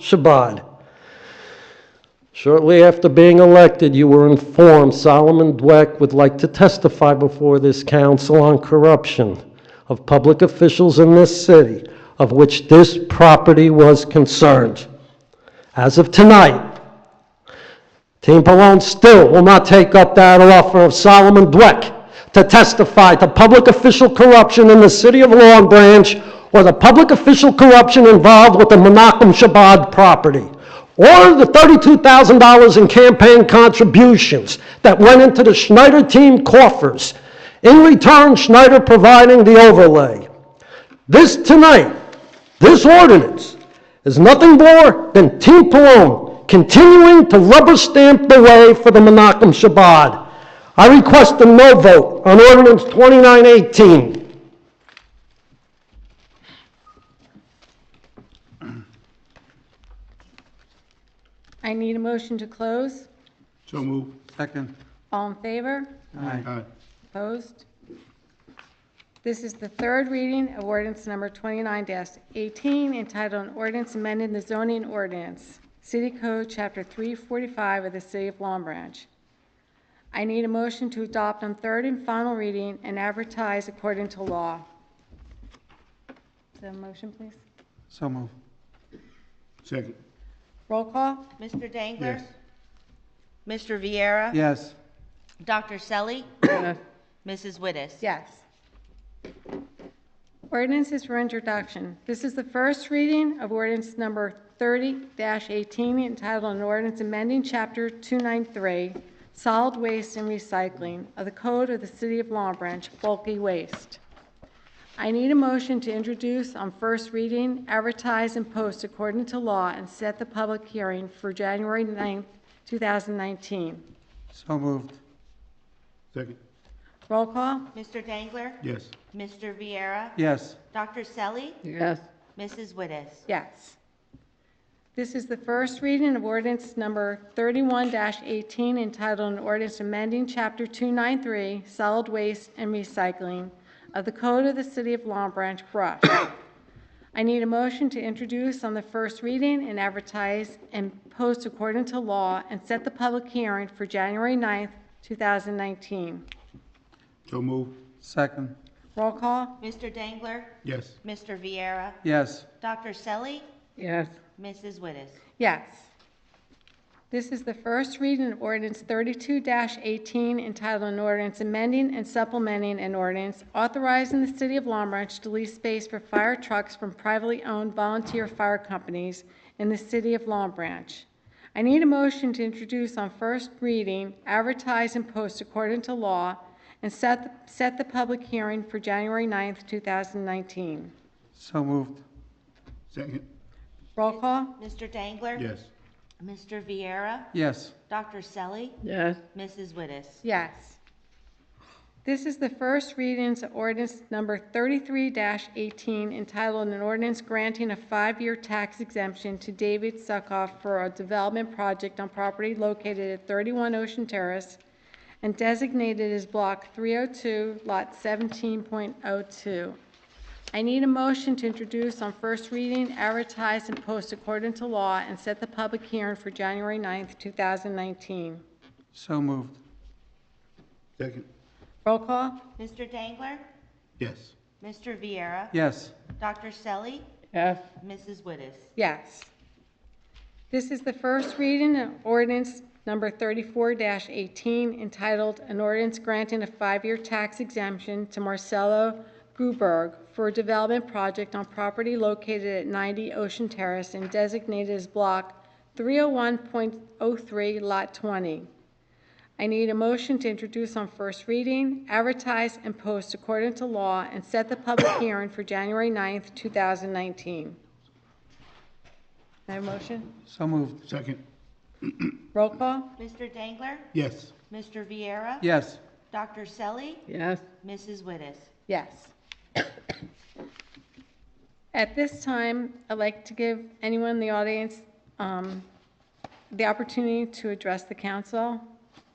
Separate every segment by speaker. Speaker 1: Shabbat. Shortly after being elected, you were informed Solomon Dweck would like to testify before this council on corruption of public officials in this city of which this property was concerned. As of tonight, Team Pallone still will not take up that offer of Solomon Dweck to testify to public official corruption in the city of Long Branch or the public official corruption involved with the Menachem Shabbat property or the $32,000 in campaign contributions that went into the Schneider team coffers, in return Schneider providing the overlay. This tonight, this ordinance, is nothing more than Team Pallone continuing to rubber stamp the way for the Menachem Shabbat. I request a no vote on ordinance 2918.
Speaker 2: I need a motion to close.
Speaker 3: So move. Second.
Speaker 2: All in favor?
Speaker 3: Aye.
Speaker 2: Opposed? This is the third reading of ordinance number 29-18, entitled an ordinance amending the zoning ordinance, City Code, Chapter 345 of the City of Long Branch. I need a motion to adopt on third and final reading and advertise according to law. Is there a motion, please?
Speaker 3: So move. Second.
Speaker 2: Roll call?
Speaker 4: Mr. Dangler?
Speaker 3: Yes.
Speaker 4: Mr. Viera?
Speaker 3: Yes.
Speaker 4: Dr. Selly? Mrs. Wittes?
Speaker 2: Yes. Ordinance is for introduction. This is the first reading of ordinance number 30-18 entitled an ordinance amending chapter 293, solid waste and recycling of the code of the city of Long Branch, bulky waste. I need a motion to introduce on first reading, advertise and post according to law, and set the public hearing for January 9th, 2019.
Speaker 3: So moved. Second.
Speaker 2: Roll call?
Speaker 4: Mr. Dangler?
Speaker 3: Yes.
Speaker 4: Mr. Viera?
Speaker 3: Yes.
Speaker 4: Dr. Selly?
Speaker 2: Yes.
Speaker 4: Mrs. Wittes?
Speaker 2: Yes. This is the first reading of ordinance number 31-18 entitled an ordinance amending Chapter 293, Solid Waste and Recycling of the Code of the City of Long Branch, Brush. I need a motion to introduce on the first reading and advertise and post according to law and set the public hearing for January 9th, 2019.
Speaker 3: So move. Second.
Speaker 2: Roll call?
Speaker 4: Mr. Dangler?
Speaker 3: Yes.
Speaker 4: Mr. Viera?
Speaker 3: Yes.
Speaker 4: Dr. Selly?
Speaker 2: Yes.
Speaker 4: Mrs. Wittes?
Speaker 2: Yes. This is the first reading of ordinance 32-18 entitled an ordinance amending and supplementing an ordinance authorizing the city of Long Branch to lease space for fire trucks from privately owned volunteer fire companies in the city of Long Branch. I need a motion to introduce on first reading, advertise and post according to law, and set, set the public hearing for January 9th, 2019.
Speaker 3: So moved. Second.
Speaker 2: Roll call?
Speaker 4: Mr. Dangler?
Speaker 3: Yes.
Speaker 4: Mr. Viera?
Speaker 3: Yes.
Speaker 4: Dr. Selly?
Speaker 2: Yes.
Speaker 4: Mrs. Wittes?
Speaker 2: Yes. This is the first readings of ordinance number 33-18 entitled an ordinance granting a five-year tax exemption to David Suckoff for a development project on property located at 31 Ocean Terrace and designated as Block 302, Lot 17.02. I need a motion to introduce on first reading, advertise, and post according to law, and set the public hearing for January 9th, 2019.
Speaker 3: So moved. Second.
Speaker 2: Roll call?
Speaker 4: Mr. Dangler?
Speaker 3: Yes.
Speaker 4: Mr. Viera?
Speaker 3: Yes.
Speaker 4: Dr. Selly?
Speaker 2: Yes.
Speaker 4: Mrs. Wittes?
Speaker 2: Yes. This is the first reading of ordinance number 34-18 entitled, "An Ordinance Granting a Five-Year Tax Exemption to Marcelo Gruberg for a Development Project on Property Located at 90 Ocean Terrace and Designated as Block 301.03, Lot 20." I need a motion to introduce on first reading, advertise, and post according to law, and set the public hearing for January 9th, 2019. May I have a motion?
Speaker 3: So moved. Second.
Speaker 2: Roll call?
Speaker 4: Mr. Dangler?
Speaker 3: Yes.
Speaker 4: Mr. Viera?
Speaker 3: Yes.
Speaker 4: Dr. Selly?
Speaker 2: Yes.
Speaker 4: Mrs. Wittes?
Speaker 2: Yes. At this time, I'd like to give anyone in the audience um, the opportunity to address the council.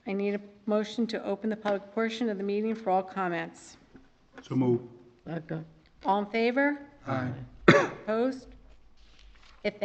Speaker 2: I need a motion to open the public portion of the meeting for all comments.
Speaker 3: So move.
Speaker 2: All in favor?
Speaker 3: Aye.
Speaker 2: Opposed?